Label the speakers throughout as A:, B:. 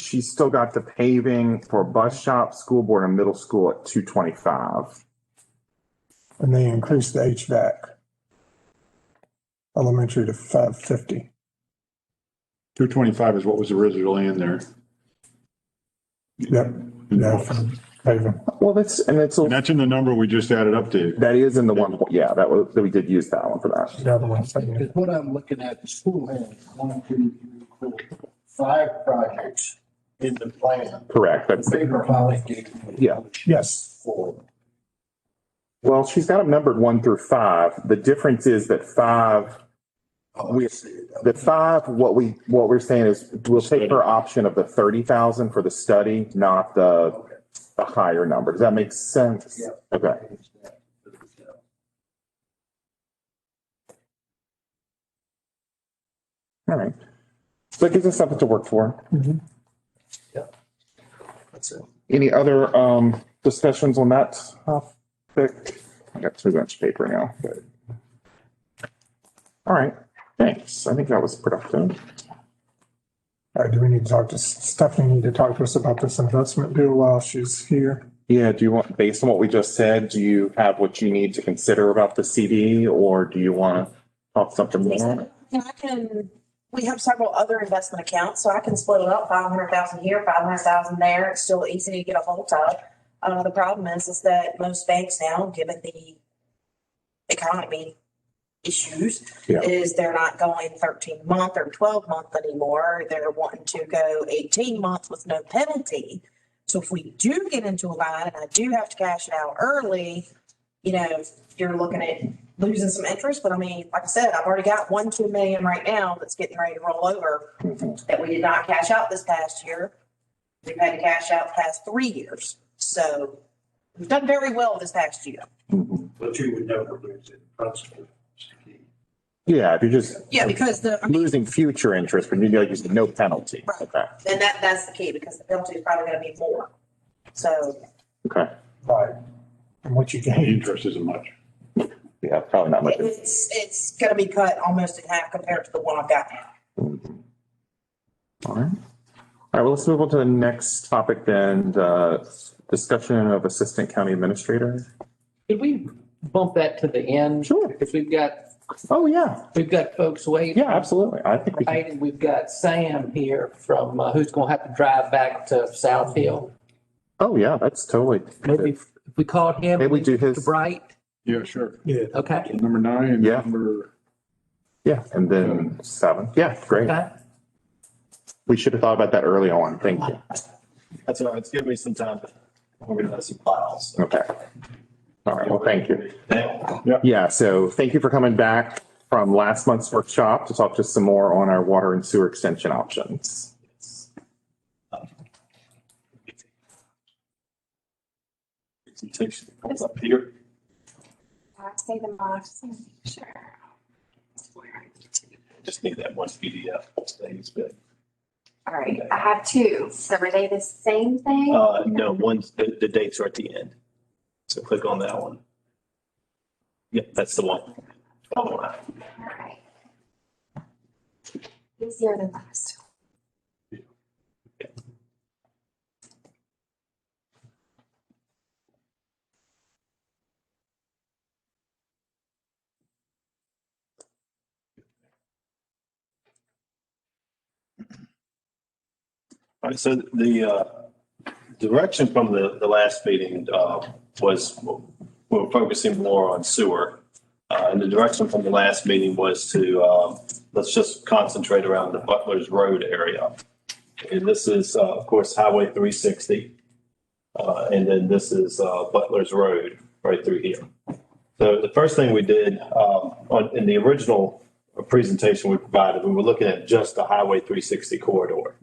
A: she's still got the paving for bus shop, school board and middle school at two twenty-five.
B: and they increased the HVAC. Elementary to five fifty.
C: Two twenty-five is what was originally in there.
B: Yep. Yeah. for paving.
A: Well, that's, and it's,
C: And
A: that
C: that's in the number we just added up, Dave.
A: is in the one, yeah, that was, we did use that one for that.
B: The other one's taking it.
D: Because what I'm looking at, the school has one, two, three, four, five projects in the plan.
A: Correct,
D: The
A: that's,
D: paper Holly gave me.
A: Yeah.
B: Yes,
D: Four.
A: well, she's got them numbered one through five. The difference is that five
D: Oh,
A: We-
D: I see it.
A: The five, what we, what we're saying is we'll take her option of the thirty thousand for the study, not the,
D: Okay.
A: the higher number. Does that make sense?
D: Yeah.
A: Okay. All right. Mm-hmm. So it gives us something to work for.
D: That's it.
A: Any other, um, discussions on that topic? I got too much paper now, but. All right, thanks. I think that was productive.
B: all right, do we need to talk to Stephanie, need to talk to us about this investment deal while she's here?
A: Yeah, do you want, based on what we just said, do you have what you need to consider about the CD or do you want to talk something more?
E: And I can, we have several other investment accounts, so I can split it up, five hundred thousand here, five hundred thousand there. It's still easy to get a hold of. Uh, the problem is, is that most banks now, given the economy issues,
A: Yeah.
E: is they're not going thirteen month or twelve month anymore. They're wanting to go eighteen months with no penalty. So if we do get into a line and I do have to cash it out early, you know, you're looking at losing some interest, but I mean, like I said, I've already got one, two million right now that's getting ready to roll over
A: Mhm.
E: that we did not cash out this past year. We've had to cash out the past three years. So we've done very well this past year.
A: Mhm.
D: But you would never lose it. That's the key.
A: Yeah, if you're just
E: Yeah, because the, I mean,
A: losing future interest, but you know, you said no penalty.
E: Right.
A: Okay,
E: and that, that's the key because the penalty is probably going to be more. So
A: okay.
B: Right. And what you
C: The
B: gain,
C: interest isn't much.
A: Yeah, probably not much.
E: it's, it's going to be cut almost in half compared to the one I've got now.
A: Mhm. All right. All right, well, let's move on to the next topic then, the discussion of assistant county administrator.
F: Could we bump that to the end?
A: Sure.
F: Because we've got,
A: Oh, yeah,
F: we've got folks waiting.
A: yeah, absolutely. I think we can,
F: Right, and we've got Sam here from, uh, who's gonna have to drive back to South Hill.
A: oh, yeah, that's totally.
F: Maybe if if we called him.
A: Maybe we do
F: Mr.
A: his,
F: Bright,
C: Yeah, sure.
F: okay?
C: Number nine and
A: Yeah.
C: number,
A: yeah, and then seven. Yeah, great.
F: Okay.
A: We should have thought about that early on. Thank you.
G: That's all right. It's given me some time to organize some files.
A: Okay. All right. Well, thank you.
G: Now.
A: Yeah. So thank you for coming back from last month's workshop to talk to us some more on our water and sewer extension options.
G: Presentation comes up here.
H: I'd say the most, sure.
G: Just need that one PDF. Things, but,
H: All right, I have two. So were they the same thing?
G: uh, no, one's, the, the dates are at the end. So click on that one. Yep, that's the one. All right.
H: All right. Easier than last.
G: All right, so the uh, direction from the, the last meeting uh, was, we were focusing more on sewer. Uh, And the direction from the last meeting was to, uh, let's just concentrate around the Butler's Road area. And this is, uh, of course, Highway 360. Uh, And then this is uh, Butler's Road right through here. So the first thing we did um, on- in the original presentation we provided, we were looking at just the Highway 360 corridor.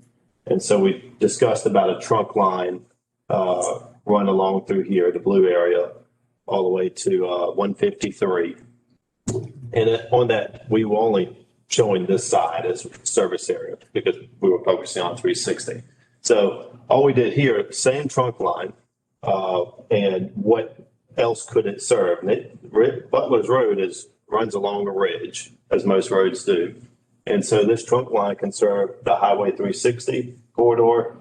G: And so we discussed about a trunk line uh, run along through here, the blue area, all the way to uh, 153. And it- on that, we were only showing this side as service area because we were focusing on 360. So all we did here, same trunk line, uh, and what else could it serve? And it- Ri- Butler's Road is, runs along a ridge, as most roads do. And so this trunk line can serve the Highway 360 corridor